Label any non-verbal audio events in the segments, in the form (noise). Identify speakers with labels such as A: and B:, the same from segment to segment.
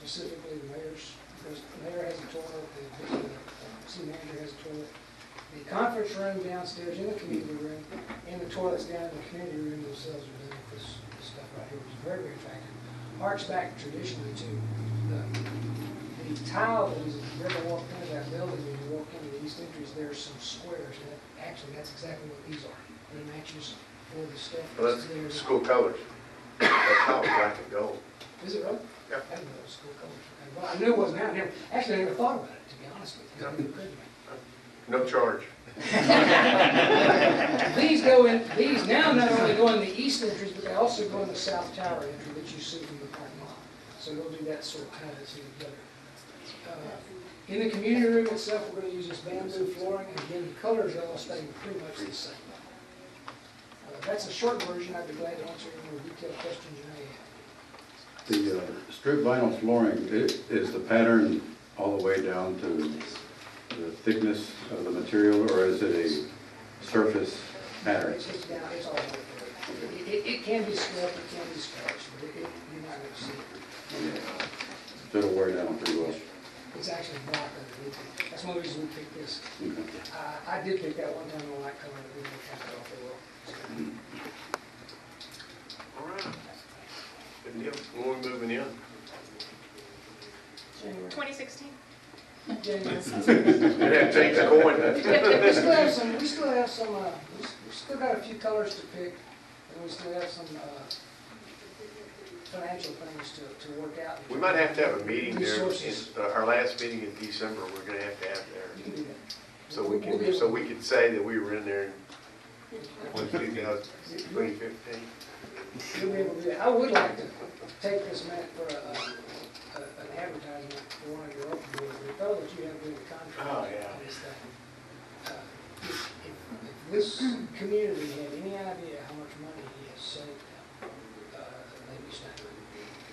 A: specifically the mayor's, there's- the mayor has a toilet, the, the uh, city manager has a toilet. The conference room downstairs in the community room, and the toilets down in the community room themselves are done with this this stuff right here, which is very, very effective. Harks back traditionally to the, the tile that is, if you ever walk into that building, when you walk into the east entries, there's some squares, and that- actually, that's exactly what these are. It matches all the stuff
B: Well,
A: that's there.
B: that's school colors. That's how it's black and gold.
A: Is it right?
B: Yeah.
A: I didn't know it was school colors. And, Well, I knew it wasn't out there. Actually, I never thought about it, to be honest with you.
B: Yeah.
A: I really couldn't.
B: No charge.
A: These go in, these now not only go in the east entrance, but they also go in the south tower entry that you see from the parking lot. So they'll do that sort of kind of thing together. Uh, In the community room itself, we're going to use this bamboo flooring, and again, the colors are all staying pretty much the same. Uh, That's a short version. I'd be glad to answer any more detailed questions you may have.
C: The uh, strip vinyl flooring, i- is the pattern all the way down to the thickness of the material, or is it a surface pattern?
A: It's, it's down, it's all over. It, it, it can be scrubbed, it can be scratched, but it, it, you're not gonna see it.
C: That'll wear down pretty well.
A: It's actually black underneath it. That's one reason we picked this.
C: Okay.
A: Uh, I did pick that one time on light color, but we didn't have it off the wall.
B: All right. Good deal. When we (laughs) moving in?
A: January.
D: 2016?
A: January.
B: It had to change the coin.
A: We still have some, we still have some, uh, we s- we still got a few colors to pick, and we still have some, uh, financial things to, to work out.
B: We might have to have a meeting there.
A: Resources.
B: In- uh, Our last meeting in December, we're gonna have to have
A: You
B: there.
A: can do that.
B: So we
A: We'll be
B: can,
A: able-
B: so we can say that we were in there in 2015.
A: You'll be able to do that. I would like to take this, Matt, for a, a- an advertisement for one of your open boards. The fellow that you have with the contract.
B: Oh, yeah.
A: on this thing, uh, If if- if this community had any idea how much money he has saved them, uh, they'd be staggering.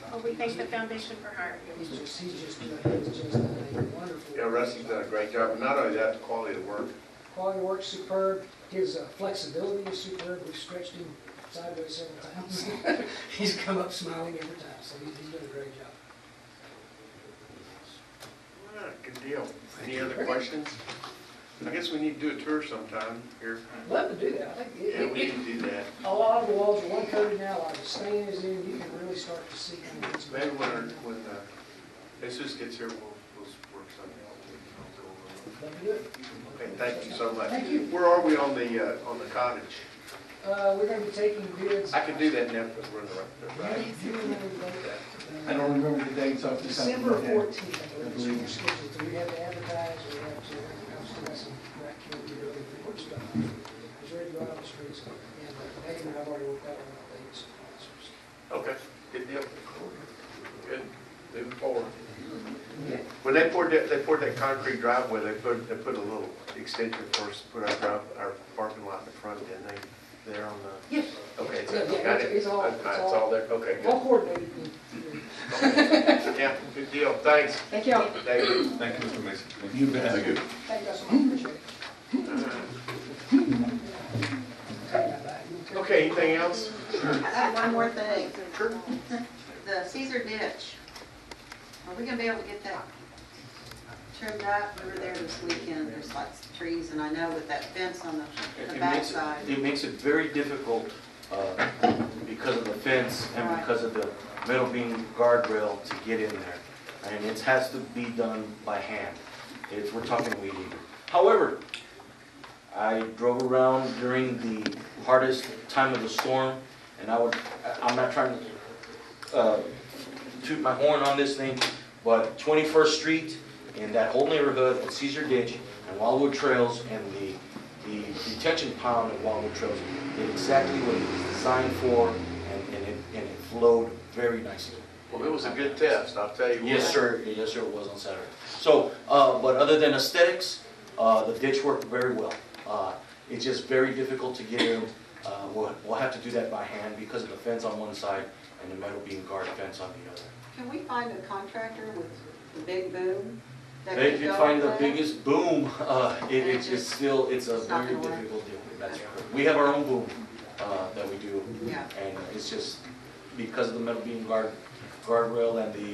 D: Well, Oh, we thank the Foundation for hiring
A: He's just, he's just, doing- he's just done a wonderful.
B: Yeah, Rusty's done a great job, but not only that, the quality of the work.
A: Quality of work's superb, his uh, flexibility is superb, we've stretched him sideways several times. (laughs) He's come up smiling every time, so he's, he's done a great job.
B: All right, Good deal. Any (laughs) other questions? I guess we need to do a tour sometime here.
A: I'd Love to do that, I think, it-
B: Yeah,
A: it-
B: we
A: it-
B: can do that.
A: a lot of the walls are one coated now, like the stain is in, you can really start to see. kind of what's
B: Maybe
A: going
B: when, our-
A: on.
B: when uh, Jesus gets here, we'll, we'll work something out. We'll
A: Love to do it.
B: go over it. Okay, thank you so much.
A: Thank you.
B: Where are we on the, uh, on the cottage?
A: Uh, we're gonna be taking bids.
B: I can do that now because we're in the right- the right.
A: You- you remember the date?
E: I don't remember the dates off the top of
A: December
E: my head.
A: fourteenth, I
E: I
A: believe,
E: believe.
A: is scheduled, so we have to advertise, we have to, I'm still got some, I can't do really report stuff. It's ready to go out on the streets, and uh, Megan and I've already worked out on the dates.
B: Okay, good deal. Good, moving forward. When they poured that, they poured that concrete driveway, they put, they put a little extension for us, to put our drive, our parking lot in the front, didn't they? There on the,
A: Yes,
B: okay, it's,
A: Yeah, yeah,
B: got it?
A: it's all-
B: Uh,
A: it's all-
B: all there, okay, good.
A: all coordinated.
B: Yeah, good deal, thanks,
A: Thank y'all.
B: David.
F: Thank you, Mr. Mason.
E: You bet.
C: Thank you.
A: Thank you guys so much, appreciate it.
E: Hmm.
A: Sorry about that.
B: Okay, anything else?
G: I have one more thing. The Caesar ditch, are we gonna be able to get that trimmed up? We were there this weekend, there's lots of trees, and I know with that fence on the,
H: It-
G: the
H: It makes,
G: backside.
H: it- it makes it very difficult uh, because of the fence and
G: Right.
H: because of the metal beam guardrail to get in there. And it has to be done by hand. It's, we're talking weed eater. However, I drove around during the hardest time of the storm, and I would, I- I'm not trying to uh, toot my horn on this thing, but 21st Street and that whole neighborhood, and Caesar Ditch, and Wildwood Trails, and the the detention pond at Wildwood Trails did exactly what it was designed for, and and it and it flowed very nicely.
B: Well, it was a good test, I'll tell you. what.
H: Yes, sir, yes, sir, it was on Saturday. So, uh, but other than aesthetics, uh, the ditch worked very well. Uh, It's just very difficult to get in. Uh, We'll, we'll have to do that by hand because of the fence on one side and the metal beam guard fence on the other.
G: Can we find a contractor with the big boom? that
H: They
G: could
H: can
G: go
H: find the
G: with that?
H: biggest boom, (laughs) uh, it, it's just still, it's a
G: It's not
H: very
G: gonna work.
H: difficult deal. That's correct. We have our own boom, uh, that we do.
G: Yeah.
H: And it's just because of the metal beam guard, guardrail and the